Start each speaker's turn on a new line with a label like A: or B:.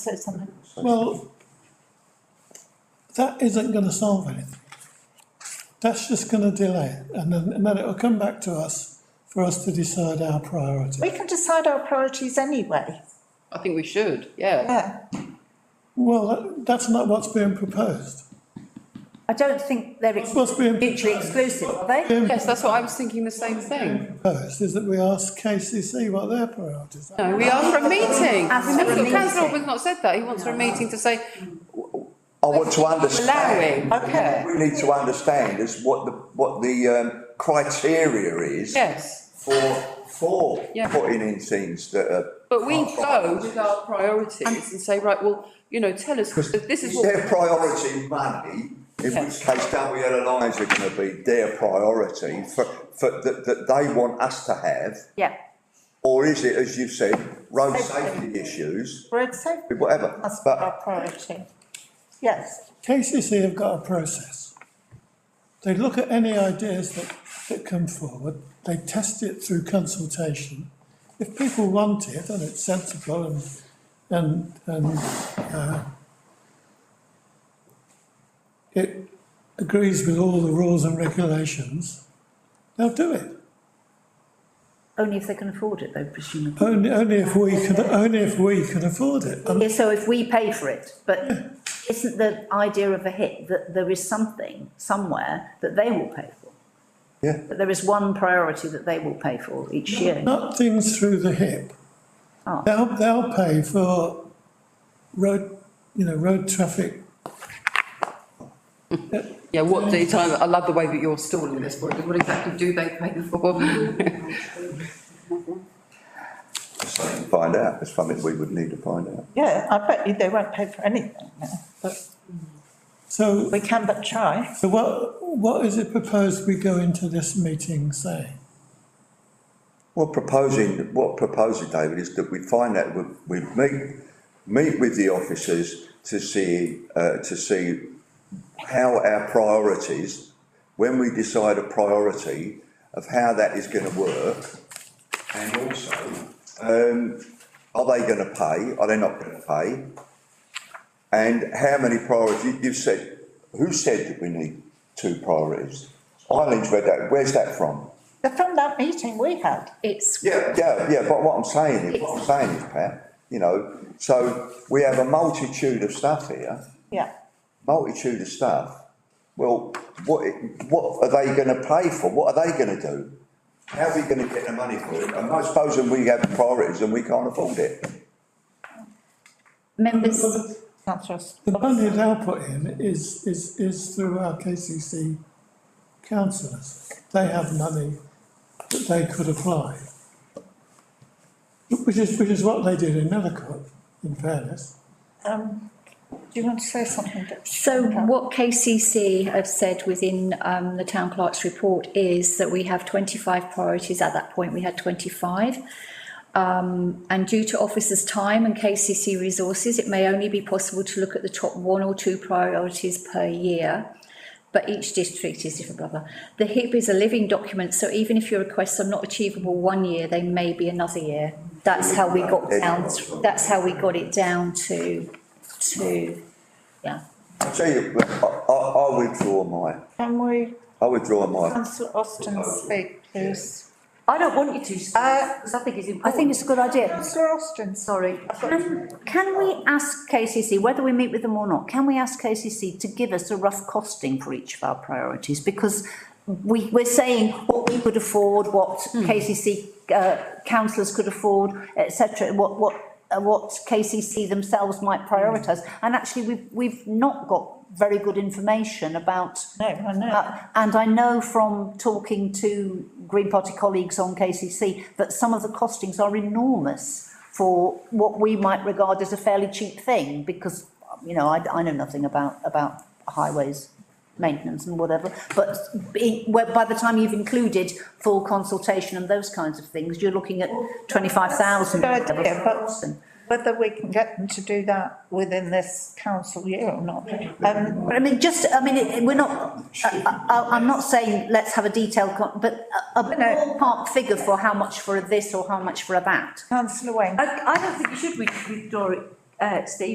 A: said something.
B: Well, that isn't gonna solve anything. That's just gonna delay it, and then, and then it'll come back to us for us to decide our priority.
A: We can decide our priorities anyway,
C: I think we should, yeah.
A: yeah.
B: Well, that- that's not what's being proposed.
D: I don't think they're
B: That's What's being
D: mutually
B: proposed-
D: exclusive, are they?
B: being
C: Yes, that's what I was thinking, the same thing.
B: proposed is that we ask KCC what their priorities are.
C: No, we asked for a meeting.
D: Ask for a
C: Look,
D: meeting.
C: Councillor Orban's not said that, he wants for a meeting to say,
E: I want to
C: allowing,
E: understand.
C: yeah,
E: We need to understand is what the, what the, um, criteria is
C: yes.
E: for, for
C: Yeah.
E: putting in things that are.
C: But we go with our priorities and say, right, well, you know, tell us, this is
E: Is
C: what,
E: their priority money, in which
C: Yes.
E: case WL Alliance are gonna be their priority for, for, that, that they want us to have?
D: Yeah.
E: Or is it, as you've said, road safety issues,
A: Road safety
E: whatever,
A: must be
E: but
A: our priority. Yes,
B: KCC have got a process. They look at any ideas that, that come forward, they test it through consultation. If people want it and it's sensible and, and, and, uh, it agrees with all the rules and regulations, they'll do it.
D: Only if they can afford it though, presumably.
B: Only, only if we can, only if we can afford it. And
D: Yeah, so if we pay for it, but isn't the idea of a hit that there is something somewhere that they will pay for?
E: Yeah.
D: That there is one priority that they will pay for each year.
B: Not things through the hip.
D: Oh.
B: They'll, they'll pay for road, you know, road traffic.
C: yeah, what the time, I love the way that you're stalling this, what what exactly do they pay for?
E: find out, it's something we would need to find out.
A: yeah, I bet you they won't pay for anything now, but
B: So,
A: we can but try.
B: so what, what is it proposed we go into this meeting saying?
E: What proposing, what proposing, David, is that we find that we, we meet, meet with the officers to see, uh, to see how our priorities, when we decide a priority of how that is going to work, and also, um, are they going to pay? Are they not going to pay? And how many priorities? You've said, who said that we need two priorities? Eileen's read that. Where's that from?
A: But From that meeting we had,
F: It's,
E: Yeah, yeah, yeah, but what I'm saying is, what I'm saying is, Pat, you know, so we have a multitude of stuff here,
A: yeah,
E: multitude of stuff. Well, what, what are they gonna pay for? What are they gonna do? How are we gonna get the money for it? And I suppose when we have priorities and we can't afford it.
F: members,
A: councillor. Ross.
B: The money they'll put in is, is, is through our KCC councillors. They have money that they could apply. Which is, which is what they did in Nethercourt, in fairness.
A: Um, do you want to say something? Deb?
F: so what KCC have said within um, the town clerk's report is that we have 25 priorities. At that point, we had 25. Um, and due to officers' time and KCC resources, it may only be possible to look at the top one or two priorities per year. But each district is different, blah, blah. The HIP is a living document, so even if your requests are not achievable one year, they may be another year. That's how we got down, that's how we got it down to, to, yeah.
E: I tell you, I, I, I withdraw my,
A: Can we,
E: I withdraw my,
A: councillor Austin speak, please?
D: I don't want you to,
A: Uh,
D: because I think it's important. I think it's a good idea.
A: Councillor Austin,
D: Sorry. Can, can we ask KCC, whether we meet with them or not, can we ask KCC to give us a rough costing for each of our priorities? Because we, we're saying what we could afford, what KCC, uh, councillors could afford, et cetera, what, what, uh, what KCC themselves might prioritise. And actually, we've, we've not got very good information about
A: no, I know,
D: uh, And I know from talking to Green Party colleagues on KCC that some of the costings are enormous for what we might regard as a fairly cheap thing, because, you know, I, I know nothing about, about highways maintenance and whatever, but it- where- by the time you've included full consultation and those kinds of things, you're looking at twenty-five thousand.
A: Good idea, but- whether we can get them to do that within this council year or not. Um,
D: But I mean, just, I mean, it- we're not, I, I, I'm not saying let's have a detailed, con- but a- a ballpark figure for how much for a this or how much for a that.
A: Councillor Wayne.
G: I, I don't think you should with- withdraw it, uh, Steve.